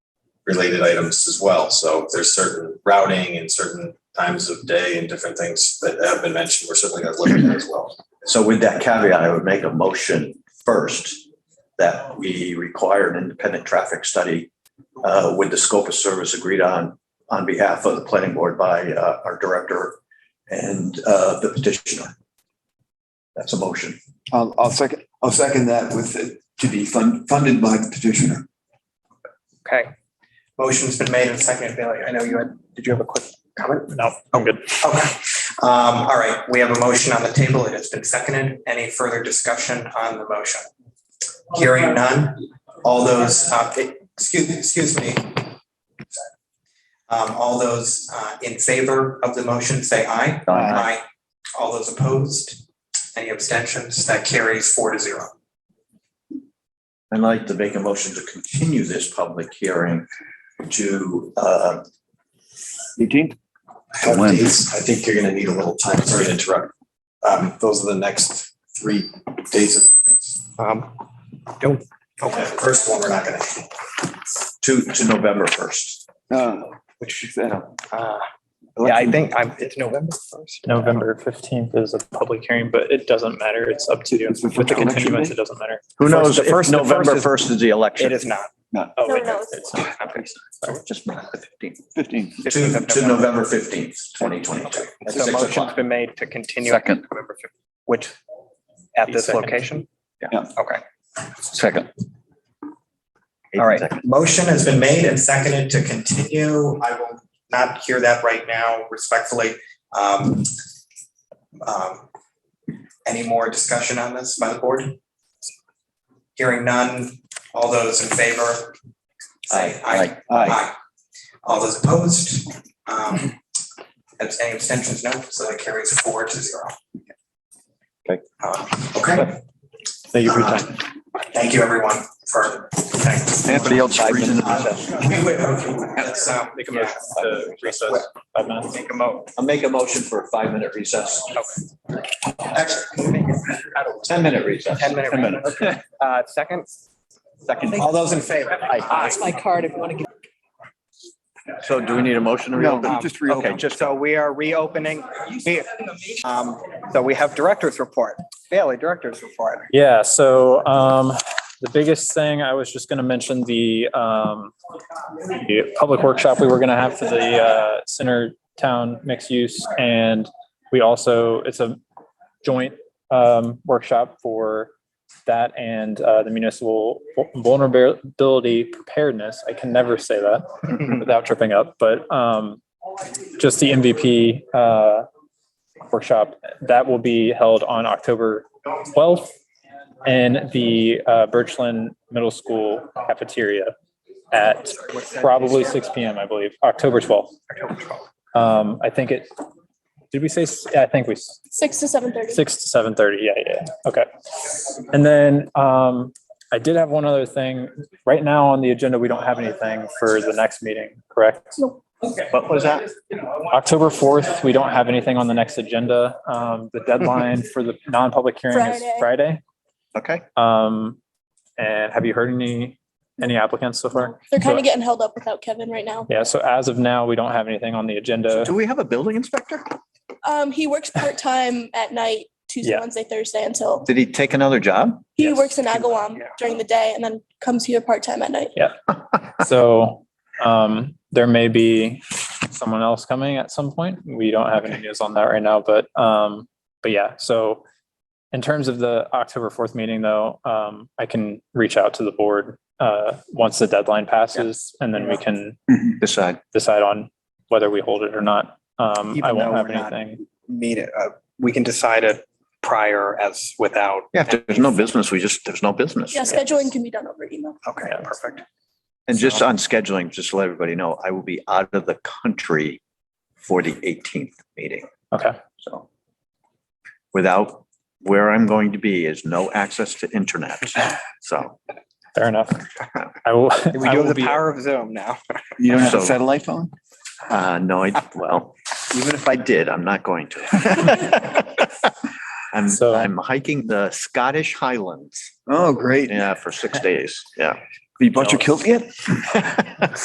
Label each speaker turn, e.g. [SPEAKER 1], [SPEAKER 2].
[SPEAKER 1] related items as well. So there's certain routing and certain times of day and different things that have been mentioned. We're certainly going to look at that as well.
[SPEAKER 2] So with that caveat, I would make a motion first that we require an independent traffic study uh, with the scope of service agreed on, on behalf of the planning board by uh, our director and uh, the petitioner. That's a motion.
[SPEAKER 3] I'll, I'll second, I'll second that with, it to be fund, funded by the petitioner.
[SPEAKER 4] Okay. Motion's been made and seconded. Bailey, I know you had, did you have a quick comment? No, I'm good. Okay. Um, all right, we have a motion on the table. It has been seconded. Any further discussion on the motion? Hearing none. All those, uh, excuse, excuse me. Um, all those, uh, in favor of the motion, say aye. Aye. All those opposed? Any abstentions? That carries four to zero.
[SPEAKER 2] I'd like to make a motion to continue this public hearing to uh,
[SPEAKER 3] Eighteenth?
[SPEAKER 1] Have
[SPEAKER 5] When?
[SPEAKER 1] dates. I think you're going to need a little time. Sorry to interrupt. Um, Those are the next three days. of-
[SPEAKER 4] Um, don't,
[SPEAKER 1] Okay, first one, we're not going to.
[SPEAKER 2] to, to November 1st.
[SPEAKER 3] No, which is, uh,
[SPEAKER 4] uh, yeah, I think I'm, it's November first.
[SPEAKER 6] November fifteenth is a public hearing, but it doesn't matter. It's up to you.
[SPEAKER 3] It's the
[SPEAKER 6] With the
[SPEAKER 3] election day?
[SPEAKER 6] continuance, it doesn't matter.
[SPEAKER 2] Who
[SPEAKER 4] First-
[SPEAKER 2] knows
[SPEAKER 4] the
[SPEAKER 2] if
[SPEAKER 4] first- the first
[SPEAKER 2] November
[SPEAKER 6] is-
[SPEAKER 2] 1st is the
[SPEAKER 4] It
[SPEAKER 2] election?
[SPEAKER 4] is not.
[SPEAKER 6] Oh,
[SPEAKER 7] No,
[SPEAKER 6] wait,
[SPEAKER 7] no,
[SPEAKER 6] it's-
[SPEAKER 7] it's
[SPEAKER 6] it's not. Okay.
[SPEAKER 2] Just the 15th.
[SPEAKER 3] fifteen.
[SPEAKER 2] To, to November 15th, 2022. at
[SPEAKER 4] So
[SPEAKER 2] six
[SPEAKER 4] motion's
[SPEAKER 2] o'clock.
[SPEAKER 4] been made to continue. it to
[SPEAKER 5] Second.
[SPEAKER 4] November 15th, Which, at this
[SPEAKER 6] Second.
[SPEAKER 4] location?
[SPEAKER 5] Yeah.
[SPEAKER 4] Okay.
[SPEAKER 5] Second.
[SPEAKER 4] All right. Motion has been made and seconded to continue. I will not hear that right now respectfully. Um, um, Any more discussion on this by the board? Hearing none. All those in favor? Say aye.
[SPEAKER 3] Aye.
[SPEAKER 4] Aye. All those opposed? Um, abs- Any abstentions? No. So that carries four to zero.
[SPEAKER 5] Okay.
[SPEAKER 4] Um, Okay. Thank you for your time. Thank you, everyone, for. thanks.
[SPEAKER 5] Anybody else freezing
[SPEAKER 4] Uh, we- we- okay, let's, uh,
[SPEAKER 6] Make a motion to recess. Five minutes.
[SPEAKER 4] Make a mo.
[SPEAKER 2] I'll make a motion for a five-minute recess,
[SPEAKER 4] Actually,
[SPEAKER 2] 10-minute recess.
[SPEAKER 4] 10 minute recess. Uh, second? Second. All those in favor? Aye.
[SPEAKER 7] my card if you want to give.
[SPEAKER 2] So do we need a motion to reopen?
[SPEAKER 4] Um, Okay, just so we are reopening. We- um, So we have director's report. Bailey, director's report.
[SPEAKER 6] Yeah, so um, the biggest thing, I was just gonna mention the um, the public workshop we were gonna have for the uh, center town mixed use. And we also, it's a joint um, workshop for that and uh, the municipal vulnerability preparedness. I can never say that without tripping up, but um, just the MVP uh, workshop, that will be held on October 12th in the uh, Birchland Middle School cafeteria at probably 6 PM, I believe, October 12th. Um, I think it, did we say, s- I think we, s-
[SPEAKER 7] Six to seven thirty.
[SPEAKER 6] six to seven thirty. Yeah, yeah, yeah. okay. And then um, I did have one other thing. Right now on the agenda, we don't have anything for the next meeting, correct?
[SPEAKER 2] What was that?
[SPEAKER 6] October fourth, we don't have anything on the next agenda. Um, the deadline for the non-public hearing is Friday.
[SPEAKER 7] Friday.
[SPEAKER 2] Okay.
[SPEAKER 6] Um, and have you heard any, any applicants so far?
[SPEAKER 7] They're kind
[SPEAKER 6] So-
[SPEAKER 7] of getting held up without Kevin right now.
[SPEAKER 6] Yeah, so as of now, we don't have anything on the agenda.
[SPEAKER 2] Do we have a building inspector?
[SPEAKER 7] Um, he works part-time at night, Tuesday,
[SPEAKER 6] Yeah.
[SPEAKER 7] Wednesday, Thursday until,
[SPEAKER 2] Did he take another job?
[SPEAKER 7] he
[SPEAKER 6] Yes.
[SPEAKER 7] works in Agawam
[SPEAKER 4] Yeah.
[SPEAKER 7] during the day and then comes here part-time at night.
[SPEAKER 6] So, um, there may be someone else coming at some point. We don't have any news on that right now, but, um, but yeah, so in terms of the October fourth meeting though, um, I can reach out to the board, uh, once the deadline passes and then we can
[SPEAKER 2] Decide.
[SPEAKER 6] decide on whether we hold it or not. Um, I
[SPEAKER 4] Even
[SPEAKER 6] won't
[SPEAKER 4] though
[SPEAKER 6] have
[SPEAKER 4] we're not-
[SPEAKER 6] anything.
[SPEAKER 4] Meet it. uh, We can decide it prior as without.
[SPEAKER 2] Yeah, if there's no business, we just, there's no business.
[SPEAKER 7] Yeah, scheduling can be done over email.
[SPEAKER 4] Okay,
[SPEAKER 6] Yeah.
[SPEAKER 4] perfect.
[SPEAKER 2] And just on scheduling, just to let everybody know, I will be out of the country for the 18th meeting.
[SPEAKER 6] Okay.
[SPEAKER 2] So without where I'm going to be is no access to internet. So.
[SPEAKER 6] Fair enough. I will.
[SPEAKER 4] We
[SPEAKER 6] I
[SPEAKER 4] do
[SPEAKER 6] will
[SPEAKER 4] have the
[SPEAKER 6] be-
[SPEAKER 4] power of Zoom now.
[SPEAKER 3] You don't have a
[SPEAKER 2] So-
[SPEAKER 3] satellite phone?
[SPEAKER 2] Uh, no, I, well, even if I did, I'm not going to. I'm,
[SPEAKER 6] So-
[SPEAKER 2] I'm hiking the Scottish Highlands,
[SPEAKER 3] Oh, great.
[SPEAKER 2] yeah, for six days, yeah.
[SPEAKER 3] You bought your kilt yet?